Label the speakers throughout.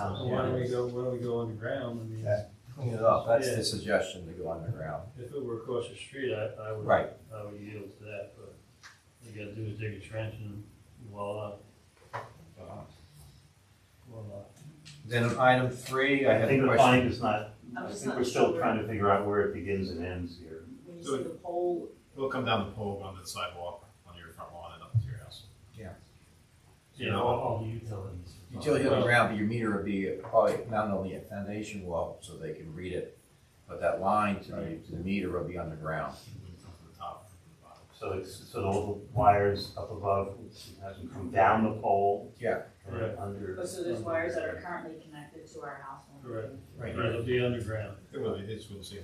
Speaker 1: why don't we go, why don't we go underground? I mean,
Speaker 2: Yeah. Clean it up, that's
Speaker 1: Yeah.
Speaker 2: the suggestion, to go underground.
Speaker 1: if it were across the street, I, I would,
Speaker 2: Right.
Speaker 1: I would yield to that, but what you gotta do is dig a trench and voila, voila.
Speaker 2: Then item three, I
Speaker 3: I
Speaker 2: have
Speaker 3: think
Speaker 2: a
Speaker 3: the
Speaker 2: question.
Speaker 3: find is not, I
Speaker 4: just
Speaker 3: think
Speaker 4: not
Speaker 3: we're still
Speaker 4: sure.
Speaker 3: trying to figure out where it begins and ends here.
Speaker 4: When you see the pole,
Speaker 5: It'll come down the pole, on the sidewalk, on your front lawn and up to your house.
Speaker 1: You know, all, all the utilities.
Speaker 2: Utility underground, but your meter would be probably not only a foundation wall, so they can read it, but that line to the, to the meter will be underground.
Speaker 5: It wouldn't come from the top, from the bottom.
Speaker 3: So it's, so the little wires up above, it has them come down the pole.
Speaker 2: Yeah.
Speaker 3: and
Speaker 1: Right.
Speaker 3: Under.
Speaker 4: oh, so there's wires that are currently connected to our house.
Speaker 1: Correct. Right, it'll be underground.
Speaker 5: It really, it's, we'll see.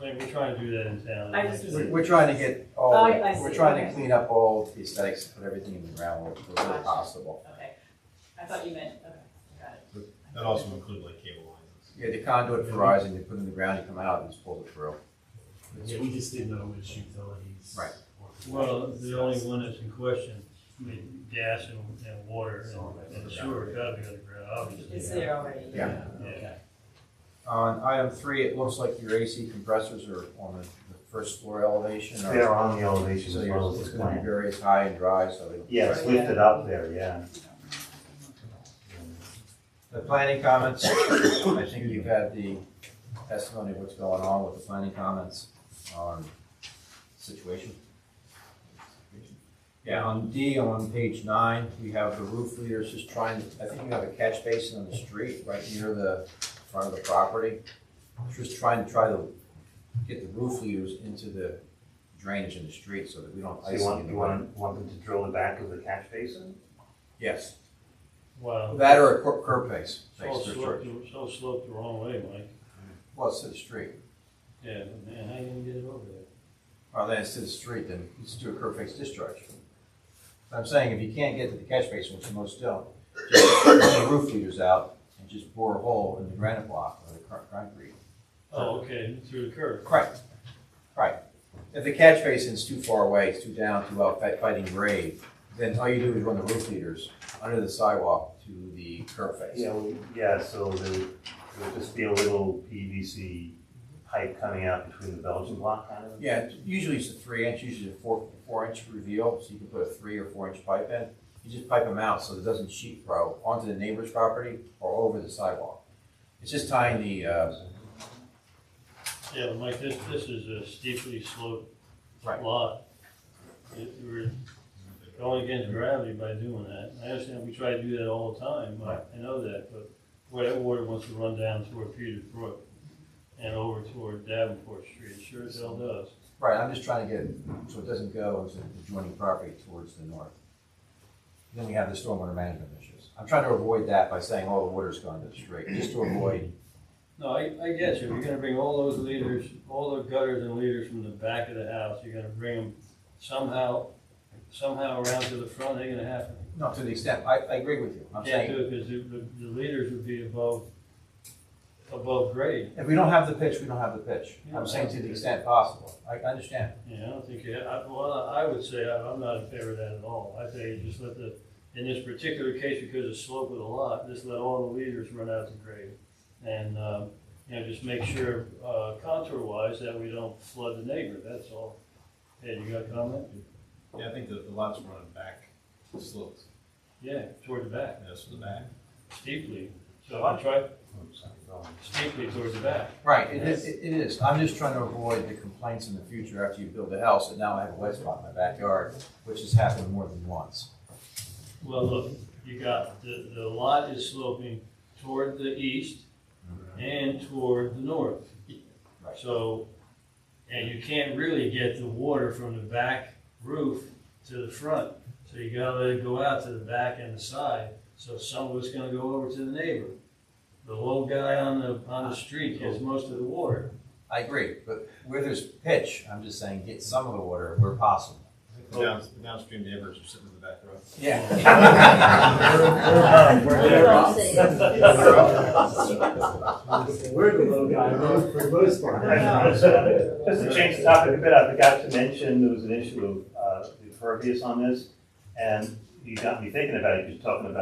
Speaker 1: I mean, we're trying to do that in town.
Speaker 4: I just was-
Speaker 2: We're, we're trying to get all,
Speaker 4: Oh, I see.
Speaker 2: we're trying to
Speaker 4: Okay.
Speaker 2: clean up all the aesthetics, put everything in the ground where where
Speaker 4: Gotcha.
Speaker 2: possible.
Speaker 4: Okay, I thought you meant, okay, got it.
Speaker 5: That also includes like cable lines.
Speaker 2: Yeah, the conduit for rising, you put it in the ground, you come out and just pull it through.
Speaker 6: Yeah, we just didn't know which utilities.
Speaker 2: Right.
Speaker 1: Well, the only one that's in question, I mean, gas and, and water and- and sewer, gotta be underground, obviously.
Speaker 4: It's there already.
Speaker 2: Yeah.
Speaker 1: Yeah.
Speaker 2: On item three, it looks like your AC compressors are on the the first floor elevation. or-
Speaker 3: They are on the elevation
Speaker 2: So
Speaker 3: as
Speaker 2: you're,
Speaker 3: well as
Speaker 2: it's
Speaker 3: the
Speaker 2: gonna be
Speaker 3: plant.
Speaker 2: very high and dry, so. it'll-
Speaker 3: Yeah, it's lifted up there, yeah.
Speaker 2: The planning comments, I think you've had the testimony of what's going on with the planning comments on situation. Yeah, on D, on page nine, we have the roof leaders just trying, I think you have a catch basin on the street right near the front of the property. Just trying to try to get the roof leaders into the drainage in the street so that we don't
Speaker 3: So
Speaker 2: ice
Speaker 3: you
Speaker 2: anyone.
Speaker 3: want, you want, want them to drill the back of the catch basin?
Speaker 2: Yes,
Speaker 1: Wow,
Speaker 2: that or a cur- curb base,
Speaker 1: it's all
Speaker 2: base for
Speaker 1: sloped,
Speaker 2: sure.
Speaker 1: it's all sloped the wrong way, Mike.
Speaker 2: Well, it's to the street.
Speaker 1: Yeah, but man, how you gonna get it over there?
Speaker 2: Or then it's to the street, then you just do a curb face discharge. But I'm saying if you can't get to the catch basin, which most don't, just run the roof leaders out and just bore a hole in the granite block or the cr- concrete.
Speaker 1: Oh, okay, through the curb.
Speaker 2: Right, right. If the catch basin's too far away, it's too down, too out, fight- fighting grade, then all you do is run the roof leaders under the sidewalk to the curb face.
Speaker 3: Yeah, well, yeah, so there would, there would just be a little PVC pipe coming out between the Belgian block kind of.
Speaker 2: Yeah, usually it's a three inch, usually a four, four inch reveal, so you can put a three or four inch pipe in. You just pipe them out so it doesn't sheet grow onto the neighbor's property or over the sidewalk. It's just tying the, uh,
Speaker 1: Yeah, but Mike, this, this is a steeply sloped
Speaker 2: Right.
Speaker 1: lot. It- We're going against gravity by doing that. I understand we try to do that all the time, I, I know that, but where that water wants to run down toward Peters Brook and over toward Davenport Street, it sure as hell does.
Speaker 2: right, I'm just trying to get, it so it doesn't go into the adjoining property towards the north. Then we have the stormwater management issues. I'm trying to avoid that by saying, oh, the water's gone to the street, just to avoid,
Speaker 1: No, I, I get you. You're gonna bring all those leaders, all the gutters and leaders from the back of the house, you're gonna bring them somehow, somehow around to the front, ain't gonna happen.
Speaker 2: no, to the extent, I, I agree with you. I'm
Speaker 1: Can't
Speaker 2: saying,
Speaker 1: do it because the, the leaders would be above, above grade.
Speaker 2: if we don't have the pitch, we don't have the pitch. I'm saying to the extent possible. I I understand.
Speaker 1: Yeah, I don't think, you- I, well, I would say I- I'm not in favor of that at all. I say you just let the, in this particular case, because of slope of the lot, just let all the leaders run out to grade. And, um, you know, just make sure, uh, contour wise, that we don't flood the neighbor, that's all. Ed, you got a comment?
Speaker 5: Yeah, I think the, the lot's running back, sloped,
Speaker 1: Yeah, toward the back,
Speaker 5: you know, so the back.
Speaker 1: steeply. So I try
Speaker 3: I'm sorry, go on.
Speaker 1: steeply toward the back.
Speaker 2: Right, it is, it it is. I'm just trying to avoid the complaints in the future after you build a house, and now I have a wet spot in my backyard, which has happened more than once.
Speaker 1: Well, look, you got, the, the lot is sloping toward the east and toward the north.
Speaker 2: Right.
Speaker 1: So, and you can't really get the water from the back roof to the front. So you gotta let it go out to the back and the side, so some of it's gonna go over to the neighbor. The low guy on the, on the street gets most of the water.
Speaker 2: I agree, but where there's pitch, I'm just saying, get some of the water where possible.
Speaker 5: The down- the downstream neighbors are sitting in the back row.
Speaker 2: Yeah.
Speaker 6: We're the little guy, right, for the most part.
Speaker 3: Just to change the topic a bit, I forgot to mention, there was an issue of uh, impervious on this, and you got me thinking about it, because you're talking about